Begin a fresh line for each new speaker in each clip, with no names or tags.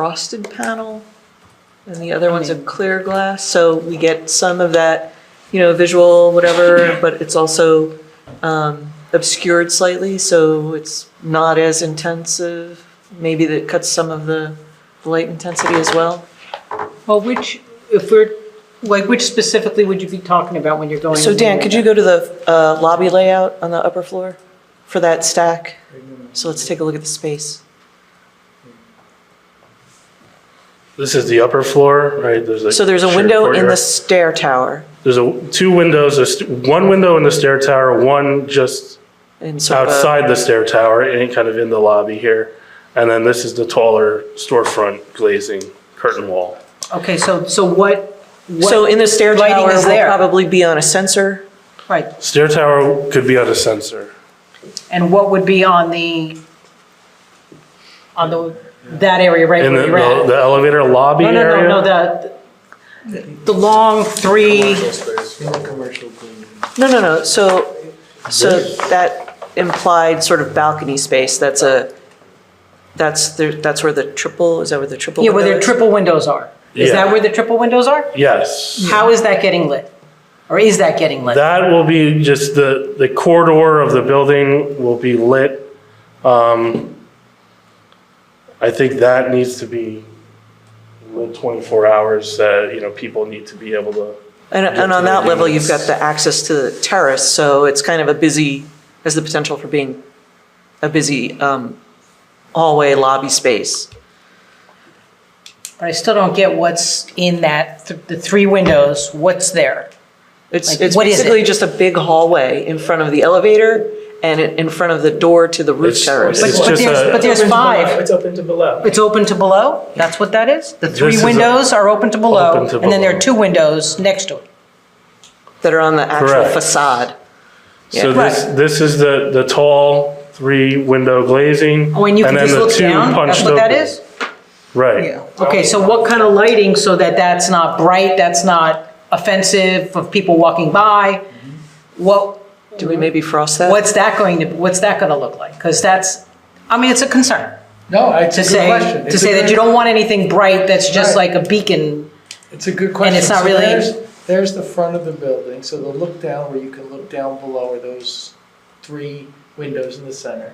frosted panel, and the other one's a clear glass, so we get some of that, you know, visual, whatever, but it's also um, obscured slightly, so it's not as intensive. Maybe that cuts some of the light intensity as well.
Well, which, if we're, like, which specifically would you be talking about when you're going?
So Dan, could you go to the uh, lobby layout on the upper floor for that stack? So let's take a look at the space.
This is the upper floor, right? There's like
So there's a
shared
window in the
courtyard.
stair tower,
There's a, two windows, there's one window in the stair tower, one just
and sort of a-
outside the stair tower, and kind of in the lobby here. And then this is the taller storefront glazing curtain wall.
Okay, so, so what? what-
So in the stair
lighting
tower,
is
we'll
there?
probably be on a sensor.
Right,
Stair tower could be on a sensor.
and what would be on the, on the, that area right
In the,
where you're at?
the the elevator lobby
No, no,
area?
no, no, the, the long three,
Commercial cleaning.
No, no, no, so, so that implied sort of balcony space, that's a, that's, the that's where the triple, is that where the triple
yeah, where
window
the
is?
triple windows are. Is
Yeah.
that where the triple windows are?
Yes.
How is that getting lit? Or is that getting lit?
That will be just the, the corridor of the building will be lit. Um, I think that needs to be lit 24 hours, uh, you know, people need to be able to,
And, and on that level, you've got the access to the terrace, so it's kind of a busy, has the potential for being a busy um, hallway lobby space.
But I still don't get what's in that, th- the three windows, what's there?
It's,
Like,
it's
what is it?
basically just a big hallway in front of the elevator and in in front of the door to the roof
It's-
terrace.
But,
It's
but
just
there's,
a-
but there's five.
It's open to below.
It's open to below? That's what that is? The
This
three
is a-
windows are open to below,
Open to
and then there are two
below.
windows next to it.
that are on the actual
Correct.
facade.
so
Yeah.
this, this is the, the tall three window glazing.
Oh, and you can
then
just
the
look
two
down? That's
punched
what that
open.
is?
Right.
Okay, so what kind of lighting so that that's not bright, that's not offensive of people walking by? What,
Do we maybe frost that?
what's that going to, what's that gonna look like? Because that's, I mean, it's a concern
No, it's a
to
good
say,
question.
to
It's a
say that
good-
you don't want anything bright that's just
Right.
like a beacon.
It's a good question.
it's not
So
really-
there's- There's the front of the building, so the look down where you can look down below are those three windows in the center.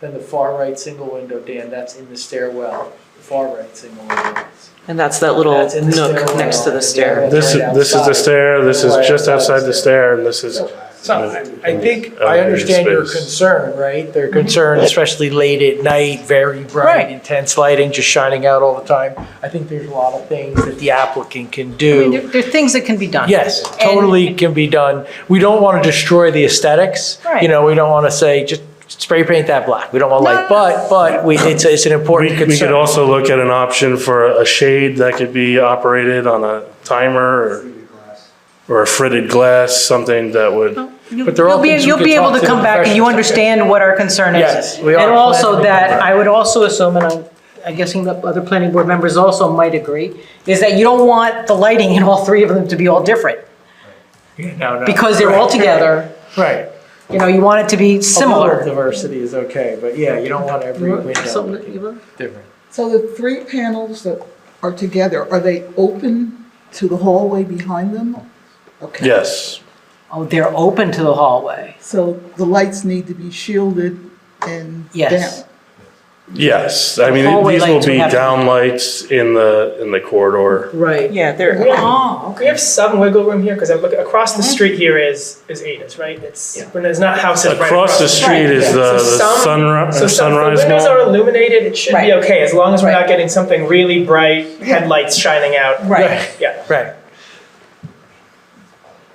Then the far right single window, Dan, that's in the stairwell, the far right single window.
And that's that little
That's in the
nook
stairwell.
next to the stair.
This,
Right
this is the
outside.
stair, this is
Right
just outside the stair, and this is,
So I- I think, I
Elevator
understand your
uh, space.
concern, right? Their concern, especially late at night, very bright,
Right.
intense lighting, just shining out all the time. I think there's a lot of things that the applicant can
I mean,
do.
there, there are things that can be done.
Yes,
And-
totally can be done. We don't want to destroy the aesthetics.
Right.
You know, we don't want to say, just spray paint that black. We don't want
No,
like,
no, no.
but, but we, it's, it's an
we
important
we could
concern.
also look at an option for a shade that could be operated on a timer or. or a fritted glass, something that would,
You-
But they're all
You'll be,
things we
you'll
could
be able
talk
to
to
come
the
back and you
professionals.
understand what our concern is.
Yes, we are
And also
glad to
that,
be back.
I would also assume, and I'm, I'm guessing the other planning board members also might agree, is that you don't want the lighting in all three of them to be all different,
No, no.
because they're all together,
Right.
you know, you want it to
Oh,
be
A little
similar.
diversity is okay, but yeah, you don't want every window looking
Something-
different.
So the three panels that are together, are they open to the hallway behind them? Okay.
yes.
Oh, they're open to the hallway.
So the lights need to be shielded and
Yes.
down.
Yes, I mean,
Hallway
these will
lights would
be
have to be-
downlights in the, in the corridor.
Right.
Yeah, there,
Oh,
We have some wiggle room here because I'm looking across
Uh-huh.
the street here is is Ada's, right? It's when there's not houses right
Across the street is the
So
the
some-
sunri- uh,
So some, if
sunrise
the windows are
mall.
illuminated, it should
Right.
be okay as long as we're
Right.
not getting something really bright headlights shining out.
right.
Yeah.
Right,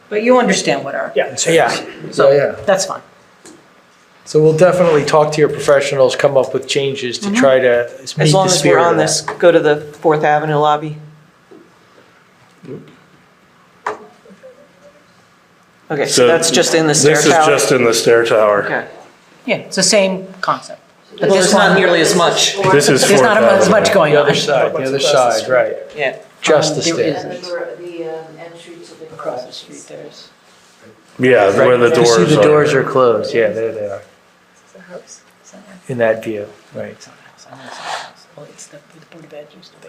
But you understand what our,
Yeah.
so yeah, so yeah.
that's fine.
So we'll definitely talk to your professionals, come up with changes to try to meet the spirit.
Mm-hmm. as long as we're on
of that.
this, go to the Fourth Avenue lobby. Okay, so
So
that's just in the stair
This is
tower.
just in the stair tower.
Okay,
Yeah, it's the same concept.
well, there's not nearly as much,
This is
There's
Fourth
not as much
Avenue.
going
The
on.
other side, the other side, right,
yeah.
just the
Um, there
stairs.
is-
And the, the um, entry to the across the street there's.
Yeah, where the
Right. You
doors are.
see the doors are closed, yeah, there they are, in that view, right.
Well, it's the, the Board of Ed used to be.